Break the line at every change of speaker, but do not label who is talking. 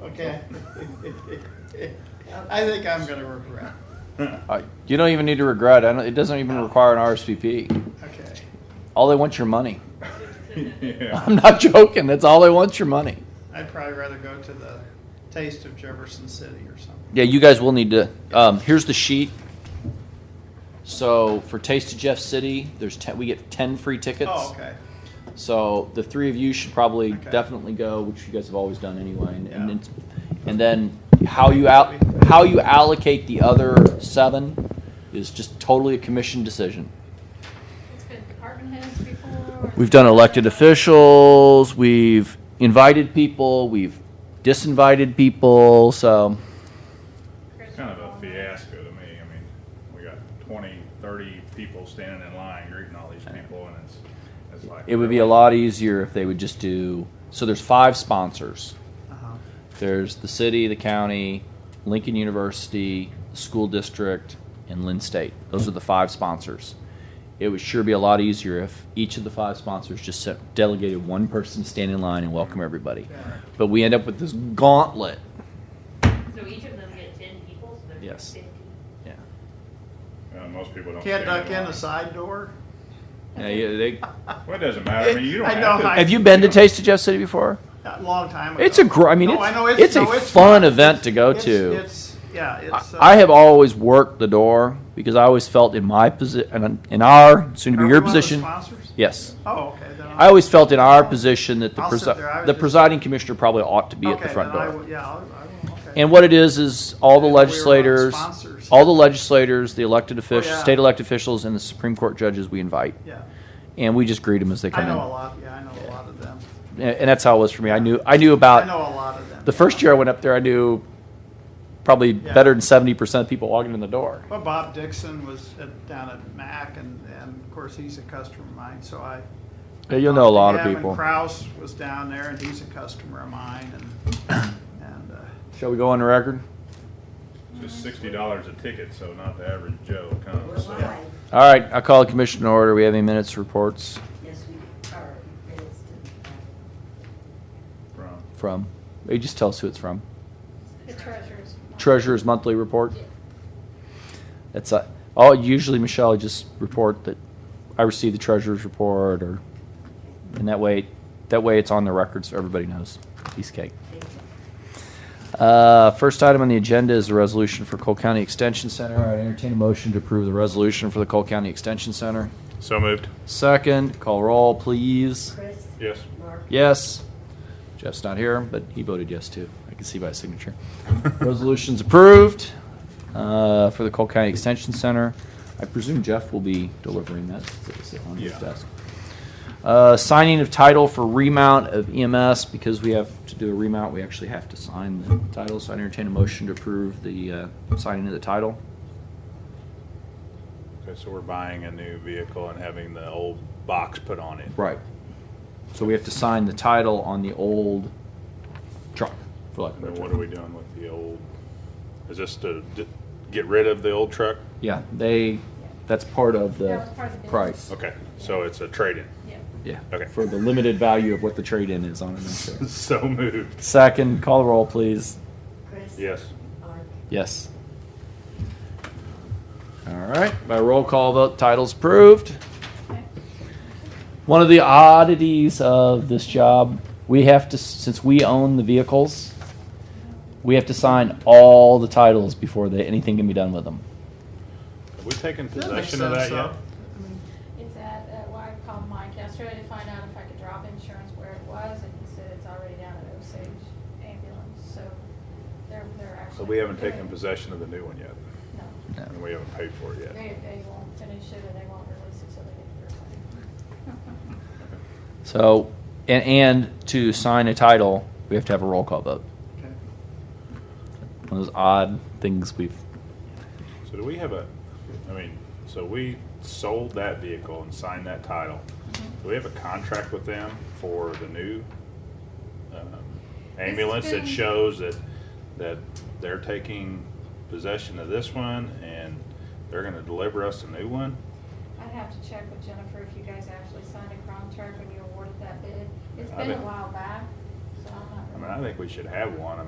okay? I think I'm gonna regret,
Uh, You don't even need to regret. I don't, it doesn't even require an RSVP.
okay.
All they want your money.
Yeah.
I'm not joking. That's all they want your money.
I'd probably rather go to the Taste of Jefferson City or something.
Yeah, you guys will need to. Um, here's the sheet. So for Taste of Jeff City, there's ten, we get ten free tickets.
Oh, okay,
So the three of you should probably
Okay.
definitely go, which you guys have always done anyway. And, and,
Yeah.
it's, and then how you out how you allocate the other seven is just totally a commission decision.
It's been department heads before.
We've done elected officials. We've invited people. We've disinvited people. So
Chris
It's kind of a
Paul.
fiasco to me. I mean, we got 20, 30 people standing in line greeting all these people, and it's, it's like.
it would be a lot easier if they would just do. So there's five sponsors.
uh-huh,
There's the city, the county, Lincoln University, the school district, and Lynn State. Those are the five sponsors. It would sure be a lot easier if each of the five sponsors just sent- delegated one person to stand in line and welcome everybody.
yeah.
But we end up with this gauntlet.
So each of them get ten people, so there's
Yes.
fifty.
Yeah.
Uh, most people don't.
Can't
stand
duck in
line.
a side door?
Yeah, you- they-
Well, it doesn't matter. I mean, you don't
I
have
know,
to.
I-
have you been to Taste of Jeff City before?
A long time ago.
It's a gr- I mean,
No,
it's-
I know
it's a
no,
fun
fun.
event to go
It's-
to.
It's, yeah, it's. uh,
I have always worked the door because I always felt in my position, in our soon to
are
be
we
your
one of the
position.
sponsors?
Yes.
Oh, okay, then.
I always felt in our position that the,
I'll sit
presi-
there. I was
the
just-
presiding commissioner probably ought to be at the
okay,
front
then I
door.
will- Yeah, I'll- I will, okay.
And what it is is all the
If we were one of the
legislators,
sponsors. Oh,
all the legislators, the elected officials,
yeah.
state elected officials, and the Supreme Court judges we invite,
Yeah,
and we just greet them as they
I
come
know a
in.
lot, yeah, I know a lot of them.
And, and that's how it was for me. I knew I knew
I
about
know a lot of them.
Uh, the first year I went up there. I knew probably
Yeah.
better than seventy percent of people walking in the door.
Well, Bob Dixon was at, down at MAC, and, and of course, he's a customer of mine, so I.
Yeah, You'll know a lot of
Yeah, and
people.
Kraus was down there, and he's a customer of mine, and, and, uh,
Shall we go on the record?
It's Just sixty dollars a ticket, so not the average Joe
We're
comes. So.
live.
All right, I call the commission to order. We have any minutes reports
Yes, we are. It's the-
From
from? You just tell us who it's from.
The treasurer's.
treasurer's monthly report. That's uh, all. Usually, Michelle I just report that I received the treasurer's report, or and that way, that way it's on the record so everybody knows. Piece of cake. Uh, first item on the agenda is the resolution for Cole County Extension Center. I entertain a motion to approve the resolution for the Cole County Extension Center.
so moved.
Second, call roll, please.
Chris?
Yes.
Mark?
Yes. Jeff's not here, but he voted yes too. I can see by his signature. Resolution's approved uh, for the Cole County Extension Center. I presume Jeff will be delivering that since it was sitting on his
Yeah.
desk. Uh, Signing of title for remount of EMS, because we have to do a remount, we actually have to sign the title. So I entertain a motion to approve the uh, signing of the title.
Okay, so we're buying a new vehicle and having the old box put on it.
Right. So we have to sign the title on the old truck, for lack of a
And
better
then
term.
what are we doing with the old? Is this to d- get rid of the old truck?
Yeah, they, that's part of
That
the
was part of the
price.
Okay, so it's a trade-in.
Yeah.
Yeah.
Okay.
For the limited value of what the trade-in is on an insurance.
so moved.
Second, call the roll, please.
Chris?
Yes.
Mark?
Yes. All right, by roll call vote, title's approved.
Okay.
One of the oddities of this job, we have to, since we own the vehicles, we have to sign all the titles before they, anything can be done with them.
Have we taken
that makes
possession of
sense,
that yet?
though. I mean,
It's at, uh, well, I called Mike yesterday to find out if I could drop insurance where it was, and he said it's already down at Osage Ambulance, so they're, they're actually.
So we haven't taken
doing-
possession of the new one yet,
No,
No.
and we haven't paid for it yet.
they, they won't finish it and they won't release it till they get their money.
So, and, and to sign a title, we have to have a roll call vote.
okay.
One of those odd things we've.
So do we have a, I mean, so we sold that vehicle and signed that title. Do we have a contract with them for the new um, ambulance that
been-
shows that, that they're taking possession of this one and they're gonna deliver us a new one?
I'd have to check with Jennifer if you guys actually signed a contract when you awarded that bid. It's
I
been a
bet.
while back, so I'm not.
I mean, I think we should have one. I mean,